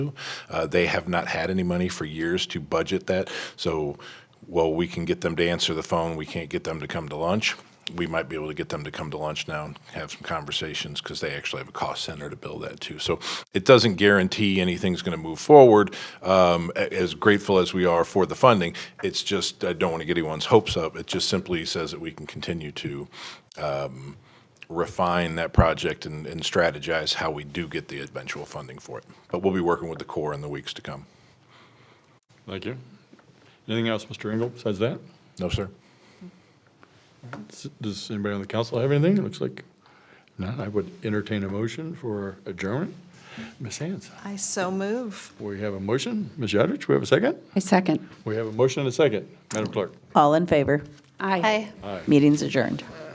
Uh, They have not had any money for years to budget that. So while we can get them to answer the phone, we can't get them to come to lunch. We might be able to get them to come to lunch now and have some conversations because they actually have a cost center to build that too. So it doesn't guarantee anything's going to move forward. Um, a- As grateful as we are for the funding, it's just, I don't want to get anyone's hopes up. It just simply says that we can continue to um, refine that project and, and strategize how we do get the eventual funding for it. But we'll be working with the Corps in the weeks to come. Thank you. Anything else, Mr. Engel, besides that? No, sir? S- Does anybody on the council have anything? It looks like not. I would entertain a motion for adjournment. Ms. Hands, I so move. we have a motion. Ms. Yadrich, we have a second? I second. We have a motion and a second. Madam Clerk? All in favor? Aye. Meeting's adjourned.